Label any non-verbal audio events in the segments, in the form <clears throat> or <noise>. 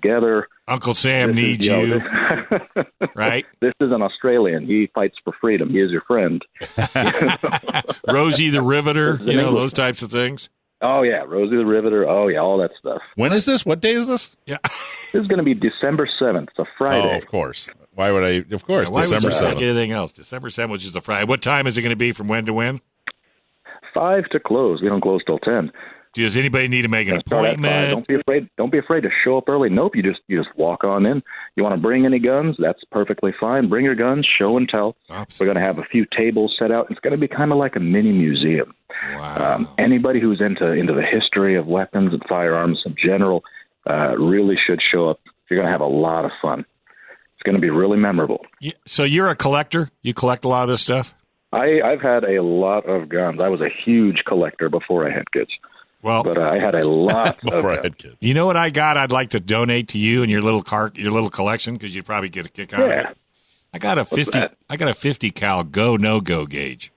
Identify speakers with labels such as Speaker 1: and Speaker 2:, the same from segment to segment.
Speaker 1: together.
Speaker 2: Uncle Sam needs
Speaker 1: know,
Speaker 2: you,
Speaker 1: this-
Speaker 2: right?
Speaker 1: <laughs> this is an Australian. He fights for freedom. He is your friend.
Speaker 2: Rosie the Riveter,
Speaker 1: This is
Speaker 2: you know,
Speaker 1: amazing.
Speaker 2: those types of things.
Speaker 1: Oh yeah, Rosie the Riveter. Oh yeah, all that stuff.
Speaker 3: When is this? What day is this?
Speaker 1: This is going to be December seventh. It's a
Speaker 3: Oh,
Speaker 1: Friday.
Speaker 3: of course. Why would I? Of course,
Speaker 2: Now, why
Speaker 3: December
Speaker 2: would you like
Speaker 3: seventh.
Speaker 2: anything else? December 7th, which is a Friday. What time is it going to be from when to when?
Speaker 1: Five to close. We don't close till ten.
Speaker 2: Does anybody need to make an
Speaker 1: Gonna start at five.
Speaker 2: appointment?
Speaker 1: Don't be afraid. Don't be afraid to show up early. Nope. You just you just walk on in. You want to bring any guns? That's perfectly fine. Bring your guns. Show and tell. We're
Speaker 2: Absolutely.
Speaker 1: going to have a few tables set out. It's going to be kind of like a mini museum.
Speaker 2: Wow.
Speaker 1: Um, anybody who's into into the history of weapons and firearms in general uh, really should show up. You're going to have a lot of fun. It's going to be really memorable.
Speaker 2: You- so you're a collector? You collect a lot of this stuff?
Speaker 1: I, I've had a lot of guns. I was a huge collector before I had kids,
Speaker 2: Well,
Speaker 1: but uh, I had a
Speaker 2: <laughs>
Speaker 1: lot of
Speaker 3: Before I
Speaker 1: guns.
Speaker 3: had kids.
Speaker 2: you know what I got? I'd like to donate to you and your little car, your little collection because you'd probably get a kick out of
Speaker 1: Yeah.
Speaker 2: it. I got a fifty.
Speaker 1: that?
Speaker 2: I got a fifty cal go no go gauge.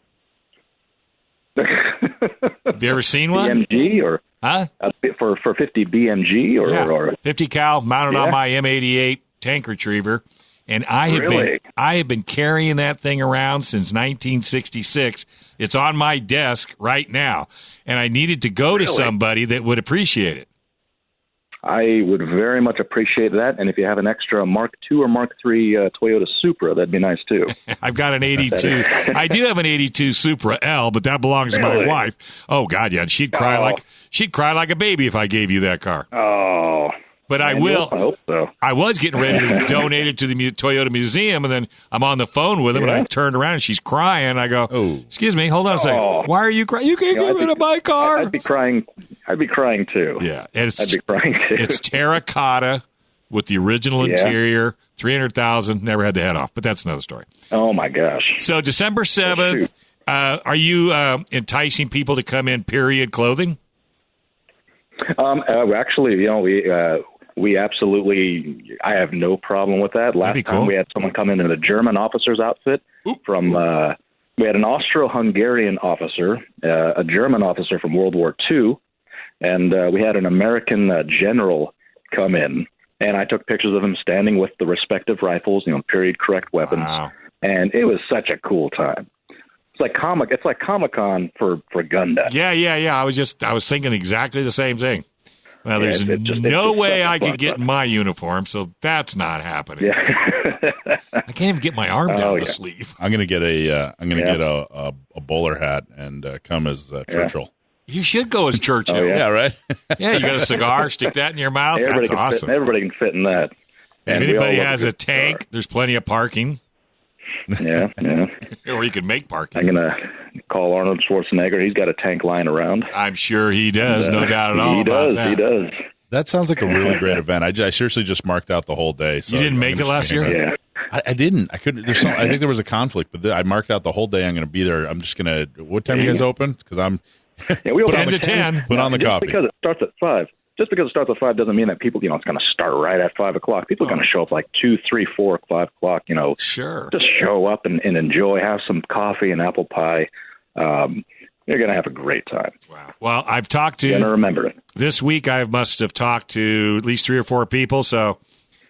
Speaker 1: <laughs>
Speaker 2: Have you ever seen one?
Speaker 1: BMG or
Speaker 2: Huh?
Speaker 1: uh, for for 50 BMG or,
Speaker 2: Yeah,
Speaker 1: or
Speaker 2: fifty cal mounted on
Speaker 1: Yeah.
Speaker 2: my M eighty eight tank retriever, and I have been
Speaker 1: Really?
Speaker 2: I have been carrying that thing around since nineteen sixty six. It's on my desk right now, and I needed to go to somebody that would appreciate it. <laughs>
Speaker 1: I would very much appreciate that. And if you have an extra Mark II or Mark III uh, Toyota Supra, that'd be nice too.
Speaker 2: I've got an 82. I do have an 82 Supra L, but that belongs to my
Speaker 1: Really?
Speaker 2: wife. Oh God, yeah, she'd cry
Speaker 1: Oh.
Speaker 2: like she'd cry like a baby if I gave you that car.
Speaker 1: Oh,
Speaker 2: But <laughs> I
Speaker 1: man,
Speaker 2: will.
Speaker 1: I hope so.
Speaker 2: I was getting ready
Speaker 1: <laughs>
Speaker 2: to donate it to the mu- Toyota Museum, and then I'm on the phone with him, and I
Speaker 1: Yeah.
Speaker 2: turned around and she's crying. I go,
Speaker 3: Oh.
Speaker 2: "Excuse me, hold on a second.
Speaker 1: Oh.
Speaker 2: Why are you crying? You can't
Speaker 1: Yeah,
Speaker 2: get
Speaker 1: I'd
Speaker 2: rid
Speaker 1: be-
Speaker 2: of my car."
Speaker 1: I'd be crying. I'd be crying too.
Speaker 2: yeah, and it's
Speaker 1: I'd be crying too.
Speaker 2: it's terracotta with the original
Speaker 1: Yeah.
Speaker 2: interior, three hundred thousand. Never had the head off, but that's another story.
Speaker 1: <laughs> oh my gosh.
Speaker 2: So December seventh,
Speaker 1: shoot.
Speaker 2: uh, are you uh, enticing people to come in period clothing?
Speaker 1: Um, uh, well, actually, you know, we uh, we absolutely. I have no problem with that. Last
Speaker 2: be cool.
Speaker 1: time we had someone come in in a German officer's outfit from. Uh, we had an Austro-Hungarian officer, uh, a German officer from World War II, and uh, we had an American uh, general come in. And I took pictures of him standing with the respective rifles, you know, period correct weapons,
Speaker 2: Wow.
Speaker 1: and it was such a cool time. It's like comic. It's like Comic Con for for gun nuts.
Speaker 2: Yeah, yeah, yeah. I was just I was thinking exactly the same thing. Well,
Speaker 1: Yeah,
Speaker 2: there's
Speaker 1: it- it just- it
Speaker 2: no
Speaker 1: just
Speaker 2: way
Speaker 1: sucks
Speaker 2: I could
Speaker 1: fun,
Speaker 2: get
Speaker 1: but-
Speaker 2: my uniform, so that's not happening.
Speaker 1: <laughs> Yeah.
Speaker 2: I can't even get my arm down
Speaker 1: Oh,
Speaker 2: the
Speaker 1: yeah.
Speaker 2: sleeve.
Speaker 3: I'm gonna get a. Uh, I'm gonna
Speaker 1: Yeah.
Speaker 3: get a, a a bowler hat and uh, come as uh, Churchill.
Speaker 2: You should
Speaker 1: <laughs>
Speaker 2: go as Churchill.
Speaker 1: Oh,
Speaker 3: Yeah,
Speaker 2: yeah.
Speaker 1: yeah.
Speaker 3: right. <laughs>
Speaker 2: you got a cigar, stick that in your mouth.
Speaker 1: everybody
Speaker 2: Oh, That's
Speaker 1: can
Speaker 2: awesome.
Speaker 1: fit. Everybody can fit in that.
Speaker 2: if
Speaker 1: And we all
Speaker 2: anybody
Speaker 1: love
Speaker 2: has a
Speaker 1: good
Speaker 2: tank, there's plenty of parking, <laughs>
Speaker 1: cigar. yeah, yeah.
Speaker 2: or you can make
Speaker 1: I'm
Speaker 2: parking.
Speaker 1: gonna call Arnold Schwarzenegger. He's got a tank lying around. Uh,
Speaker 2: I'm sure he does, no doubt at all
Speaker 1: He
Speaker 2: about
Speaker 1: does.
Speaker 2: that.
Speaker 1: He does.
Speaker 3: that sounds like a really great event. I, ju- I seriously just marked out the whole day. So
Speaker 2: You didn't
Speaker 3: I'm
Speaker 2: make
Speaker 3: gonna
Speaker 2: it last
Speaker 3: just be hanging
Speaker 2: year?
Speaker 3: out.
Speaker 1: Yeah.
Speaker 3: I, I didn't. I couldn't. There's some. I think there was a conflict, but th- I marked out the whole day. I'm gonna be there. I'm just gonna. What time you guys open? Because I'm
Speaker 1: Yeah, we open
Speaker 2: 10
Speaker 1: up
Speaker 2: to
Speaker 1: at
Speaker 2: 10.
Speaker 3: Put on the
Speaker 1: just
Speaker 3: coffee.
Speaker 1: Because it starts at five. Just because it starts at five doesn't mean that people, you know, it's going to start right at five o'clock. People are going to show up like two, three, four, five o'clock. You know,
Speaker 2: Sure.
Speaker 1: just show up and, and enjoy. Have some coffee and apple pie. Um, you're going to have a great time.
Speaker 2: Wow. Well, I've talked to
Speaker 1: You're going to remember it.
Speaker 2: this week I must have talked to at least three or four people. So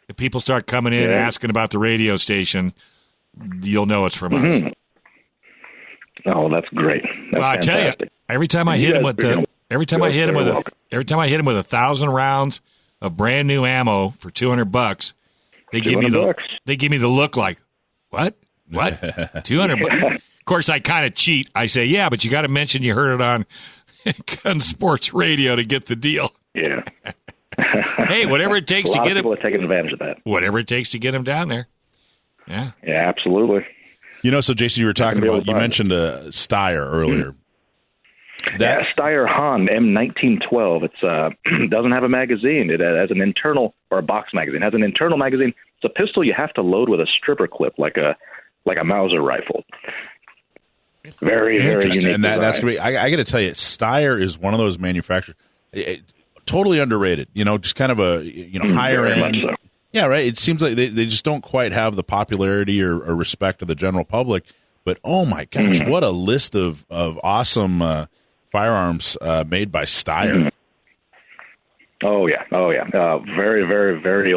Speaker 2: if people start coming in and
Speaker 1: Yeah.
Speaker 2: asking about the radio station, you'll know it's from us.
Speaker 1: Oh, that's great. Mm-hmm. That's
Speaker 2: Well, I tell you,
Speaker 1: fantastic.
Speaker 2: every time I
Speaker 1: You
Speaker 2: hit him
Speaker 1: guys
Speaker 2: with
Speaker 1: are
Speaker 2: the
Speaker 1: gonna-
Speaker 2: every time I
Speaker 1: guys
Speaker 2: hit him
Speaker 1: are
Speaker 2: with a,
Speaker 1: welcome.
Speaker 2: every time I hit him with a thousand rounds of brand new ammo for two hundred bucks, they give me
Speaker 1: 200
Speaker 2: the
Speaker 1: bucks.
Speaker 2: they give me the look like what
Speaker 1: <laughs>
Speaker 2: what two hundred bucks. Of course, I kind of cheat. I say, yeah, but you got to mention you heard it on <laughs> Gun Sports Radio to get the deal. <laughs>
Speaker 1: Yeah.
Speaker 2: Hey, whatever it takes
Speaker 1: A
Speaker 2: to
Speaker 1: lot of
Speaker 2: get it.
Speaker 1: people are taking advantage of that.
Speaker 2: whatever it takes to get him down there. Yeah.
Speaker 1: Yeah, absolutely.
Speaker 3: You know, so Jason, you were talking
Speaker 1: be able
Speaker 3: about.
Speaker 1: to
Speaker 3: You
Speaker 1: buy it. Hmm.
Speaker 3: mentioned a Steyr earlier. That
Speaker 1: yeah, Steyr Hahn M1912. It's uh, <clears throat> doesn't have a magazine. It has an internal or a box magazine. It has an internal magazine. It's a pistol you have to load with a stripper clip, like a like a Mauser rifle. Very very
Speaker 3: Interesting.
Speaker 1: unique.
Speaker 3: And that, that's
Speaker 1: design.
Speaker 3: gonna be. I, I got to tell you, Steyr is one of those manufacturers, it- it- totally underrated. You know, just kind of a you know higher
Speaker 1: Mm, very
Speaker 3: end.
Speaker 1: much so.
Speaker 3: Yeah, right. It seems like they, they just don't quite have the popularity or, or respect of the general public. But oh my gosh,
Speaker 1: Mm.
Speaker 3: what a list of of awesome uh, firearms uh, made by Steyr.
Speaker 1: Oh yeah, oh yeah. Uh, very, very, very